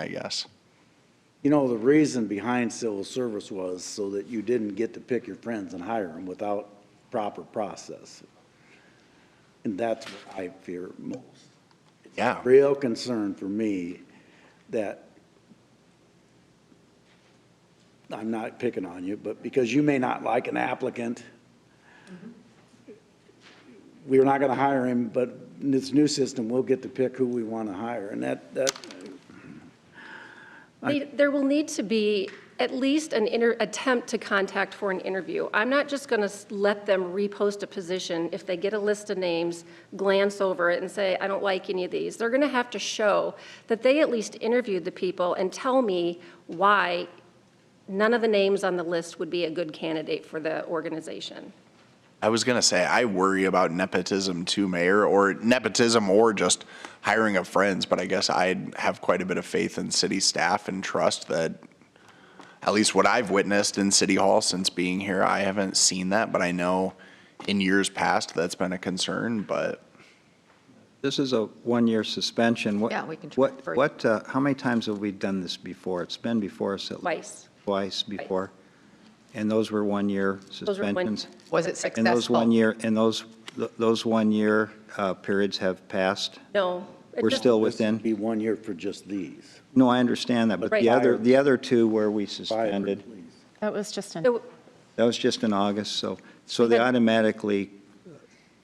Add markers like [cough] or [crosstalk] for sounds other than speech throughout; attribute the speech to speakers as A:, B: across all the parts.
A: I guess.
B: You know, the reason behind civil service was so that you didn't get to pick your friends and hire them without proper process. And that's what I fear most.
A: Yeah.
B: Real concern for me that I'm not picking on you, but because you may not like an applicant, we're not gonna hire him, but in this new system, we'll get to pick who we wanna hire. And that, that,
C: They- There will need to be at least an inter, attempt to contact for an interview. I'm not just going to let them repost a position if they get a list of names, glance over it and say, I don't like any of these. They're going to have to show that they at least interviewed the people and tell me why none of the names on the list would be a good candidate for the organization.
A: I was gonna say I worry about nepotism too, Mayor, or nepotism or just hiring of friends, but I guess I have quite a bit of faith in city staff and trust that at least what I've witnessed in City Hall since being here, I haven't seen that, but I know in years past that's been a concern, but
D: This is a one-year suspension. What-
E: Yeah, we can try it
D: What,
E: for you.
D: what, uh, how many times have we done this before? It's been before us at
C: Twice.
D: Twice before? And those were
C: were
D: one-year
C: one-
D: suspensions?
E: Was it
D: And those
E: successful?
D: one-year, and those, th- those one-year uh, periods have passed?
C: No. it
D: We're
C: just-
D: still
B: would
D: within?
B: be one year for just these.
D: No, I understand that, but
C: Right.
D: the other,
B: Five.
D: the other two where we
B: Five,
D: suspended,
B: please.
F: That was just an,
C: So
D: that was just in August, so, so they
C: had-
D: automatically,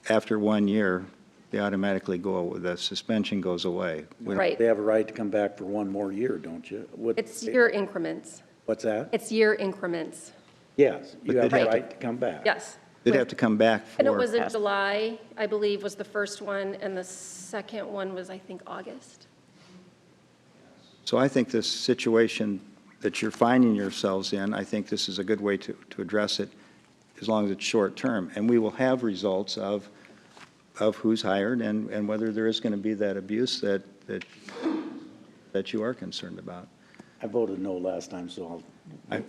D: after one year, they automatically go, the suspension goes away. We don't-
C: Right.
B: They have a right to come back for one more year, don't you? What-
C: It's year increments.
B: What's that?
C: It's year increments.
B: Yes, you have
D: they'd
B: a
C: have to-
B: right to come back.
C: Yes.
D: They'd have to come back for.
C: And it was in
F: Yes.
C: July, I believe, was the first one, and the second one was, I think, August.
D: So I think this situation that you're finding yourselves in, I think this is a good way to, to address it, as long as it's short-term. And we will have results of, of who's hired and, and whether there is going to be that abuse that, that, that you are concerned about.
B: I voted no last time, so I'll.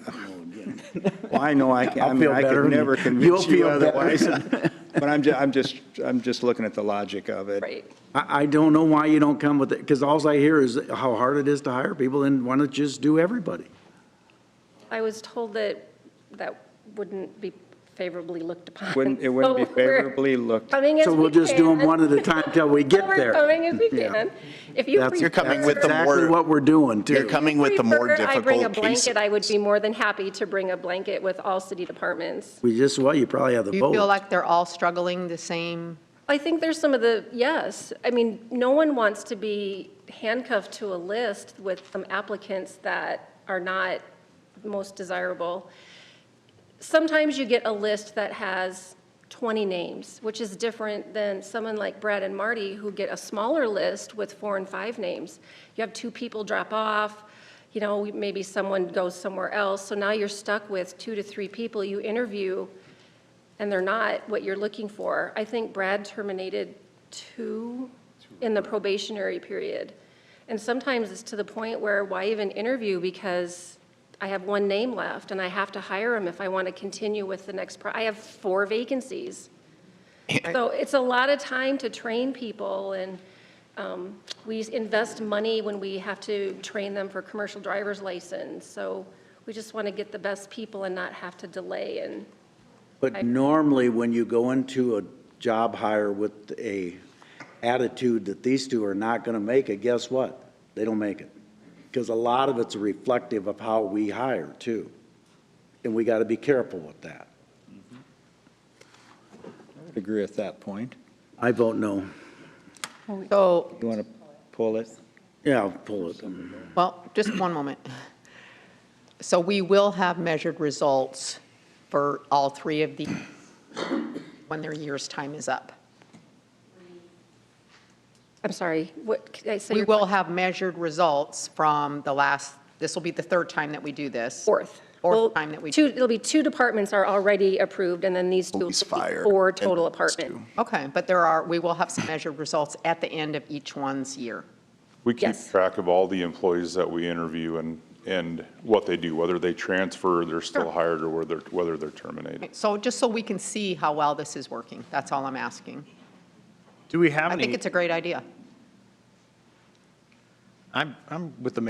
D: Well, I
B: [laughs]
D: know I can, I
B: I'll
D: mean,
B: feel
D: I
B: better
D: could
B: when
D: never
B: you- you'll
D: convince you
B: feel better.
D: otherwise.
B: [laughs]
D: But I'm ju, I'm just, I'm just looking at the logic of it.
C: Right.
B: [laughs] I, I don't know why you don't come with it, because alls I hear is how hard it is to hire people, and why not just do everybody?
C: I was told that that wouldn't be favorably looked upon. [laughs]
D: Wouldn't, it wouldn't be
C: So we're
D: favorably looked.
C: Coming as
B: So
C: we
B: we'll just do 'em
C: can.
B: one at a time till we
C: [laughs]
B: get
C: We're
B: there.
C: coming as we
B: Yeah.
C: can. If you
B: That's-
C: prefer.
A: You're coming with the
B: Exactly
A: more-
B: what we're doing,
A: you're
B: too.
A: coming with the more
C: prefer I bring a
A: difficult cases.
C: blanket, I would be more than happy to bring a blanket with all city departments.
B: We just, well, you probably have the
E: Do you feel
B: vote.
E: like they're all struggling the same?
C: I think there's some of the, yes. I mean, no one wants to be handcuffed to a list with some applicants that are not most desirable. Sometimes you get a list that has 20 names, which is different than someone like Brad and Marty who get a smaller list with four and five names. You have two people drop off, you know, maybe someone goes somewhere else. So now you're stuck with two to three people you interview and they're not what you're looking for. I think Brad terminated two in the probationary period. And sometimes it's to the point where why even interview because I have one name left and I have to hire him if I want to continue with the next, pro- I have four vacancies. So it's a lot of time to train people and um, we invest money when we have to train them for commercial driver's license. So we just want to get the best people and not have to delay and
B: But normally, when you go into a job hire with a attitude that these two are not gonna make it, guess what? They don't make it. Because a lot of it's reflective of how we hire, too. And we gotta be careful with that.
D: I would Agree with that point.
B: I vote no.
E: So
D: You want to pull it?
B: Yeah, I'll pull it.
E: Well, just one moment. So we will have measured results for all three of these when their year's time is up.
C: I'm sorry, what, could I say?
E: We
C: your
E: will have measured results from the last, this will be the third time that we do this.
C: Fourth. Well,
E: Fourth time that we.
C: Two, it'll be two departments are already approved, and then these two. will be
A: police, fire.
C: Four
A: and
C: total
A: those
C: apartments.
A: two.
E: Okay, but there are, we will have some measured results at the end of each one's year.
G: We keep
C: Yes.
G: track of all the employees that we interview and, and what they do, whether they transfer, they're still hired, or whether, whether they're terminated.
E: So just so we can see how well this is working, that's all I'm asking.
H: Do we have
E: I think
H: any,
E: it's a great idea.
H: I'm, I'm with the